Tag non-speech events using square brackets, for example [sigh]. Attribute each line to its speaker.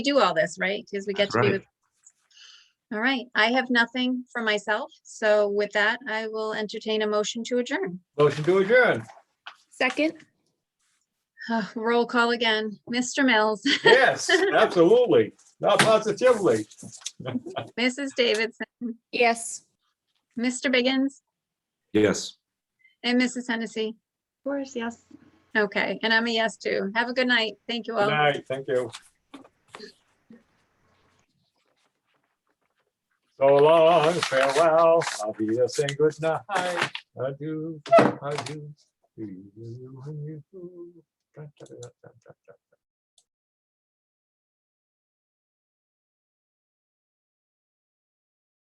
Speaker 1: do all this, right? Because we get
Speaker 2: That's
Speaker 1: to be
Speaker 2: right.
Speaker 1: with. All right, I have nothing for myself. So with that, I will entertain a motion to adjourn.
Speaker 3: Motion to adjourn.
Speaker 4: Second,
Speaker 1: Uh, Roll call again. Mr. Mills, [laughs]
Speaker 3: Yes, absolutely. Not positively.
Speaker 1: Mrs. Davidson,
Speaker 4: yes.
Speaker 1: Mr. Biggins,
Speaker 2: Yes.
Speaker 1: and Mrs. Hennessy.
Speaker 4: Of course, yes.
Speaker 1: Okay, and I'm a yes too. Have a good night. Thank you
Speaker 3: Good
Speaker 1: all.
Speaker 3: night, thank you. So long, farewell, I'll be a saying good night. Adieu, adieu. to you. Da, da, da, da, da, da.